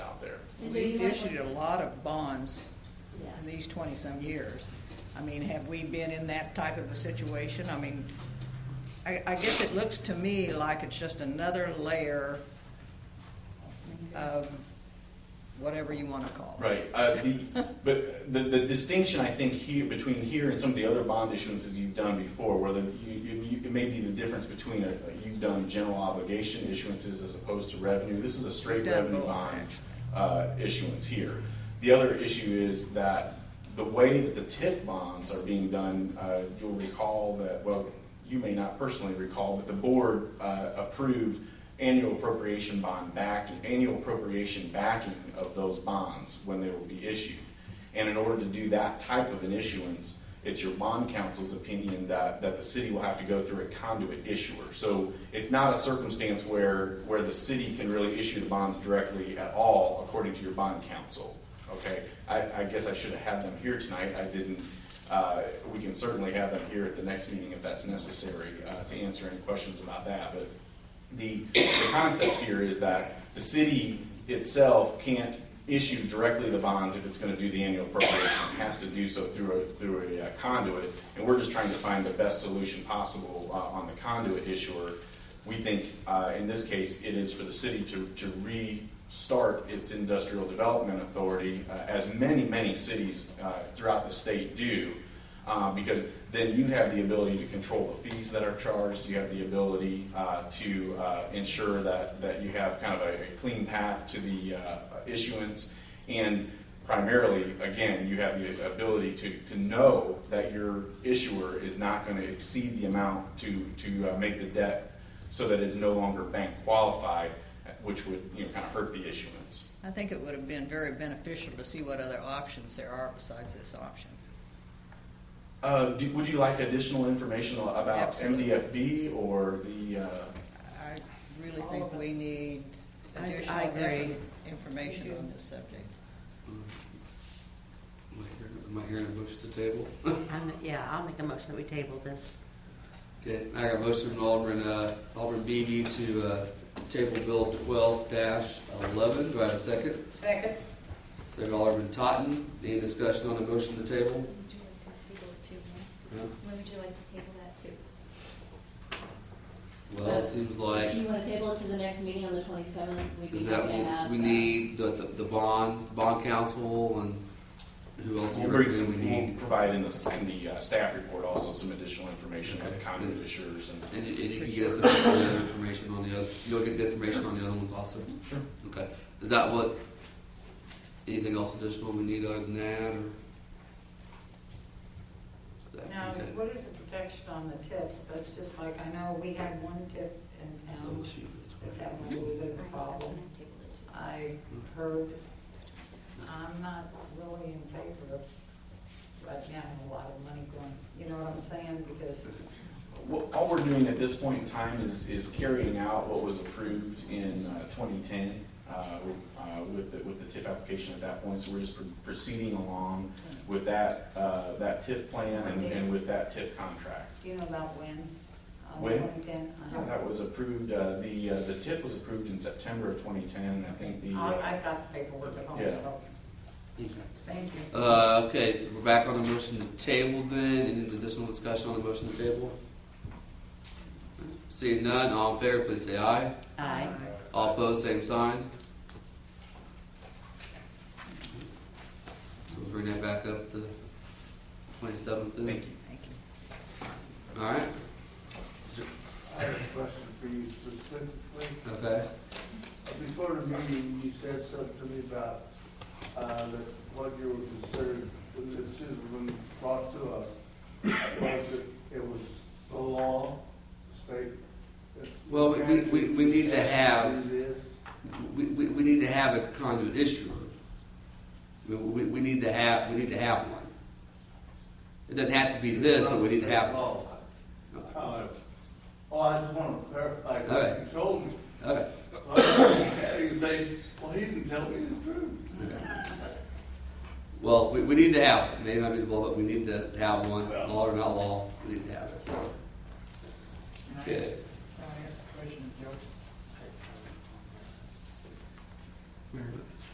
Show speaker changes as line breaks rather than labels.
And so you
We've
might
issued a
want-
lot of bonds
Yeah.
in these twenty-some years. I mean, have we been in that type of a situation? I mean, I, I guess it looks to me like it's just another layer of whatever you wanna call it.
Right, uh, the, but the, the distinction, I think, here, between here and some of the other bond issuances you've done before, where the, you, you, you- it may be the difference between a, a- you've done general obligation issuances as opposed to revenue, this is a straight
Done
revenue
both,
bond,
actually.
uh, issuance here. The other issue is that the way that the TIF bonds are being done, uh, you'll recall that, well, you may not personally recall, but the board, uh, approved annual appropriation bond backing, annual appropriation backing of those bonds when they will be issued. And in order to do that type of an issuance, it's your bond council's opinion that, that the city will have to go through a conduit issuer. So it's not a circumstance where, where the city can really issue the bonds directly at all, according to your bond council. Okay, I, I guess I should have had them here tonight, I didn't. Uh, we can certainly have them here at the next meeting if that's necessary, uh, to answer any questions about that, but the, the concept here is that the city itself can't issue directly the bonds if it's gonna do the annual appropriation. It has to do so through a, through a uh, conduit, and we're just trying to find the best solution possible, uh, on the conduit issuer. We think, uh, in this case, it is for the city to, to restart its industrial development authority, uh, as many, many cities, uh, throughout the state do uh, because then you have the ability to control the fees that are charged, you have the ability uh, to uh, ensure that, that you have kind of a a clean path to the uh, issuance, and primarily, again, you have the ability to, to know that your issuer is not going to exceed the amount to, to uh, make the debt so that it's no longer bank qualified, which would, you know, kind of hurt the issuance.
I think it would have been very beneficial to see what other options there are besides this option.
Uh, do- Would you like additional information about
Absolutely.
MDFB or the? uh,
I really
All
think
of it.
we need
I- I
additional
agree.
definite information on this subject.
Am I hearing- am I hearing a motion to table?
I'm, yeah, I'll make a motion that we table this.
Okay, I got a motion from Alderman, uh, Alderman Beatty to, uh, table bill twelve eleven. Do I have a second?
Second.
Second Alderman Totten. Any discussion on the motion to table?
Would you like to table it to, huh?
No?
Where would you like to table that to?
Well, it seems
If
like,
you wanna table it to the next meeting on the twenty-seventh, we'd be
is that
happy to
what
have.
we
uh,
need, the, the the bond, bond council and who else? do
We'll
you
bring
recommend
some,
we need?
we'll provide in the, in the uh, staff report also some additional information on the
Okay.
conduit issuers and.
And you, and you can get us the other information on the other, you'll get the information on the other ones also?
Sure.
Okay, is that what, anything else additional we need other than that, or? Is that-
Now,
okay.
what is the protection on the tips? That's just like, I know we had one tip in
So we'll
town
shoot for
that's
the 12.
having a little bit of a problem. I heard, I'm not really in favor of, right now, a lot of money going, you know what I'm saying? Because
Well, all we're doing at this point in time is, is carrying out what was approved in twenty ten, uh, uh, with, the with the TIF application at that point, so we're just pr- proceeding along with that, uh, that TIF plan and, and with that TIF contract.
do you know about when? Uh, Uh-huh.
When?
2010?
Yeah, That was approved, uh, the, uh, the TIF was approved in September of twenty ten, I think the. uh,
I, I've got the paperwork at home,
Yeah.
so,
Okay.
thank you.
Uh, okay, so we're back on the motion to table then, any additional discussion on the motion to table? Seeing none, all in favor, please say aye.
Aye.
All opposed, same sign. We'll bring that back up to twenty-seventh then.
Thank you.
Thank you.
All right,
I have a question for you specifically.
okay.
Before the meeting, you said something to me about, uh, that what you were concerned, when the citizen brought to us, was that it was the law, the state. that-
Well, we- we- we- we need to have-
It is.
We, we, we need to have a conduit issuer. We, we, we need to have, we need to have one. It doesn't have to be this, but we need to have one.
Law. However, Oh, I just want to clarify,
All right.
you told me.
Okay,
You say, well, he didn't tell me the truth.
well, we, we need to have, it. maybe not be the law, but we need to have one, law or not law, we need to have it, so. Okay.
Can I ask a question, Joe?